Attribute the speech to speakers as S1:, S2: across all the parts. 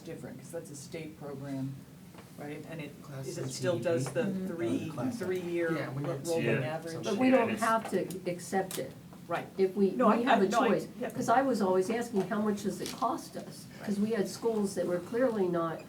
S1: different, because that's a state program, right? And it,
S2: Class
S1: is it still
S2: CTE?
S1: does the
S3: Mhm.
S1: three,
S2: Class.
S1: three-year
S2: Yeah, we did
S1: rolling
S4: Yeah.
S1: average?
S3: But
S4: Some
S3: we
S4: shit,
S3: don't
S4: it's-
S3: have to accept it.
S1: Right.
S3: If we,
S1: No, I-
S3: we have
S1: I-
S3: a
S1: no, I-
S3: choice.
S1: yeah.
S3: Because I was always asking, how much does it cost us? Because we had schools that were clearly not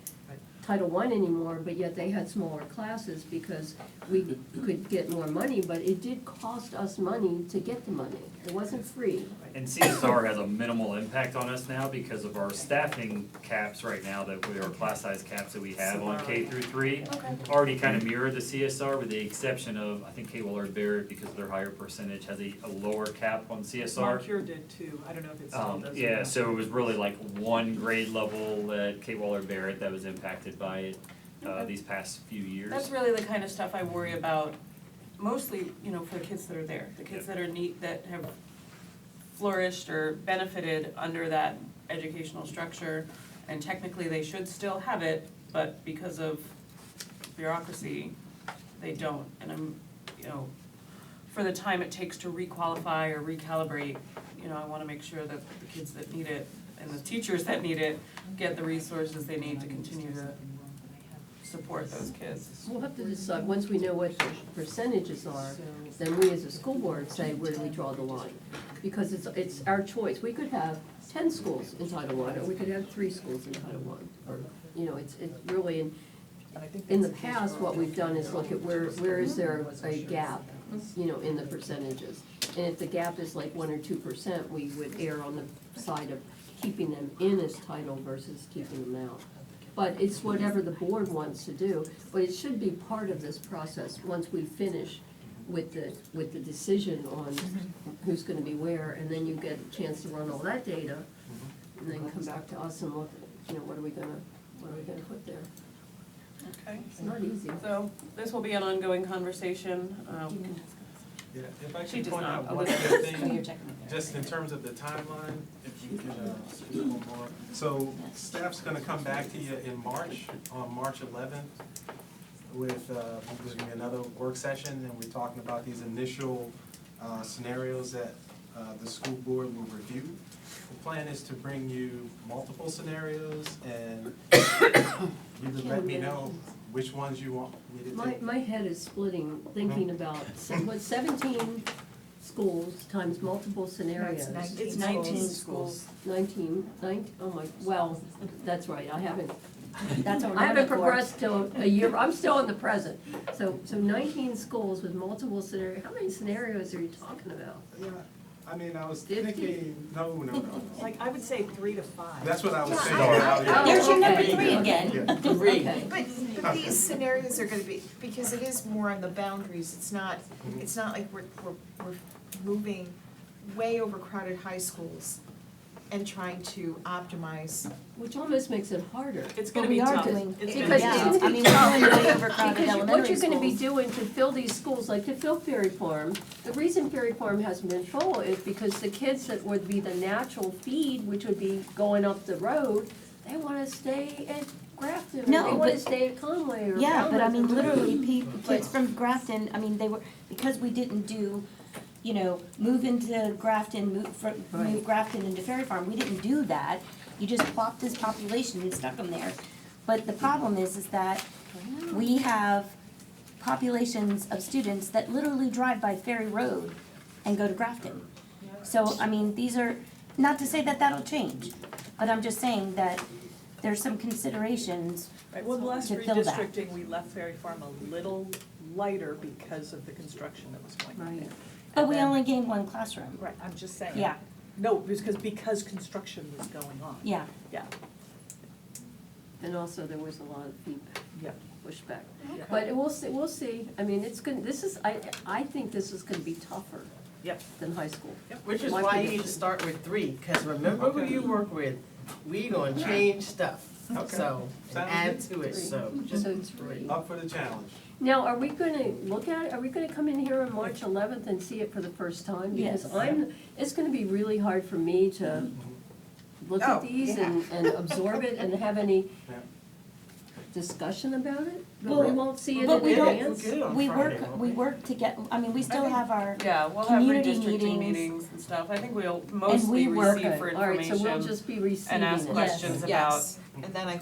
S3: Title I anymore, but yet they had smaller classes because we could get more money, but it did cost us money to get the money. It wasn't free.
S4: And CSR has a minimal impact on us now because of our staffing caps right now that we, or class size caps that we have on K through three.
S3: Okay.
S4: Already kind of mirror the CSR with the exception of, I think K Willard Barrett, because of their higher percentage, has a, a lower cap on CSR.
S1: Moncur did too, I don't know if it still
S4: Um,
S1: does. or
S4: yeah,
S1: not.
S4: so it was really like one grade level at K Willard Barrett that was impacted by it, uh,
S5: Okay.
S4: these past few years.
S5: That's really the kind of stuff I worry about, mostly, you know, for the kids that are there, the kids that are neat, that have flourished or benefited under that educational structure, and technically they should still have it, but because of bureaucracy, they don't, and I'm, you know, for the time it takes to requalify or recalibrate, you know, I wanna make sure that the kids that need it and the teachers that need it get the resources they need to continue to support those kids.
S3: We'll have to decide, once we know what the percentages are, then we as a school board say, where do we draw the line? Because it's, it's our choice. We could have ten schools in Title I, or we could have three schools in Title I. Or, you know, it's, it's really, in,
S1: And I think
S3: in the
S1: that's case
S3: past,
S1: for
S3: what
S1: all
S3: we've done is
S1: different
S3: look at where, where is there
S1: wasn't
S3: a
S1: sure.
S3: gap, you know, in the percentages? And if the gap is like one or two percent, we would err on the side of keeping them in as title versus keeping them out. But it's whatever the board wants to do, but it should be part of this process, once we finish with the, with the decision on who's gonna be where, and then you get a chance to run all that data, and then come back to us and look, you know, what are we gonna, what are we gonna put there?
S5: Okay,
S3: It's not easy.
S5: so this will be an ongoing conversation. Um,
S2: Yeah, if I
S5: She
S2: could
S5: does
S2: point
S5: not-
S2: out one other
S5: Elizabeth.
S2: thing, just in terms of the timeline, if you could, uh, speak on more. So staff's gonna come back to you in March, on March eleventh, with, uh, there's gonna be another work session, and we're talking about these initial, uh, scenarios that, uh, the school board will review. The plan is to bring you multiple scenarios, and you can let me know which ones you want me to take.
S3: My, my head is splitting, thinking about, se- what, seventeen schools times multiple scenarios.
S1: It's
S5: Nineteen
S1: nineteen
S5: schools.
S1: schools.
S3: Nineteen, nine, oh my, well, that's right, I haven't,
S6: That's
S5: Oh,
S6: what we're
S3: I haven't
S6: looking for.
S3: progressed till a year, I'm still in the present. So, so nineteen schools with multiple scenario, how many scenarios are you talking about?
S2: Yeah, I mean, I was
S3: Fifty.
S2: thinking, no, no, no.
S1: Like, I would say three to five.
S2: That's what I was saying.
S3: I-
S6: There's your number
S3: Okay.
S6: three again.
S2: Yeah.
S3: Okay.
S7: But, but these scenarios are gonna be, because it is more on the boundaries, it's not, it's not like we're, we're, we're moving way overcrowded high schools and trying to optimize.
S3: Which almost makes it harder.
S5: It's
S6: But
S5: gonna
S6: we
S5: be
S6: are
S5: tough.
S6: doing-
S5: It's gonna be
S3: Because
S6: Yeah,
S5: tough.
S3: it's-
S6: I mean, we're doing really overcrowded
S3: Because you- what
S6: elementary
S3: you're gonna be
S6: schools.
S3: doing to fill these schools, like to fill Ferry Farm, the reason Ferry Farm hasn't been full is because the kids that would be the natural feed, which would be going up the road, they wanna stay at Grafton, or
S6: No,
S3: they wanna
S6: but-
S3: stay at Conway or
S6: Yeah, but
S3: Falmouth
S6: I
S3: or
S6: mean, literally,
S3: whatever.
S6: pe- kids from Grafton, I mean, they were, because we didn't do, you know, move into Grafton, move, fr- move
S3: Right.
S6: Grafton into Ferry Farm, we didn't do that. You just plopped this population and stuck them there. But the problem is, is that we have populations of students that literally drive by Ferry Road and go to Grafton. So, I mean, these are, not to say that that'll change, but I'm just saying that there's some considerations
S1: Right, well, the last
S6: To fill that.
S1: redistricting, we left Ferry Farm a little lighter because of the construction that was going on there.
S3: Right.
S6: But we
S1: And then-
S6: only gained one classroom.
S1: Right, I'm just saying.
S6: Yeah,
S1: No, because, because construction was going on.
S6: yeah.
S1: Yeah,
S3: And also, there was a lot of feedback,
S1: yeah.
S3: pushback.
S1: Okay.
S3: But we'll see, we'll see, I mean, it's gonna, this is, I, I think this is gonna be tougher
S1: Yep.
S3: than high school.
S8: Which is
S3: My
S8: why you need to
S3: prediction.
S8: start with three, because remember who you work with, we gonna change stuff,
S2: Okay.
S8: so, and
S2: Sounds
S8: add to it, so just
S3: So three.
S2: Up for the challenge.
S3: Now, are we gonna look at, it? are we gonna come in here on March eleventh and see it for the first time?
S6: Yes.
S3: Because I'm, it's gonna be really hard for me to look
S7: Oh,
S3: at these and, and absorb it and have any
S2: Yeah.
S3: discussion about it? But we
S6: Well,
S3: won't see it
S6: but
S3: in
S6: we don't-
S3: advance?
S8: We're good on
S6: We
S8: Friday,
S6: work,
S8: won't
S6: we work to get, I mean, we still
S5: think-
S6: have our,
S5: Yeah, we'll have
S6: Community
S5: redistricting
S6: meetings.
S5: meetings and stuff. I think we'll mostly
S6: we work
S5: receive for
S3: All right, so we'll
S5: information
S3: just be receiving it.
S5: and ask questions
S6: Yes.
S5: about
S7: Yes, and then I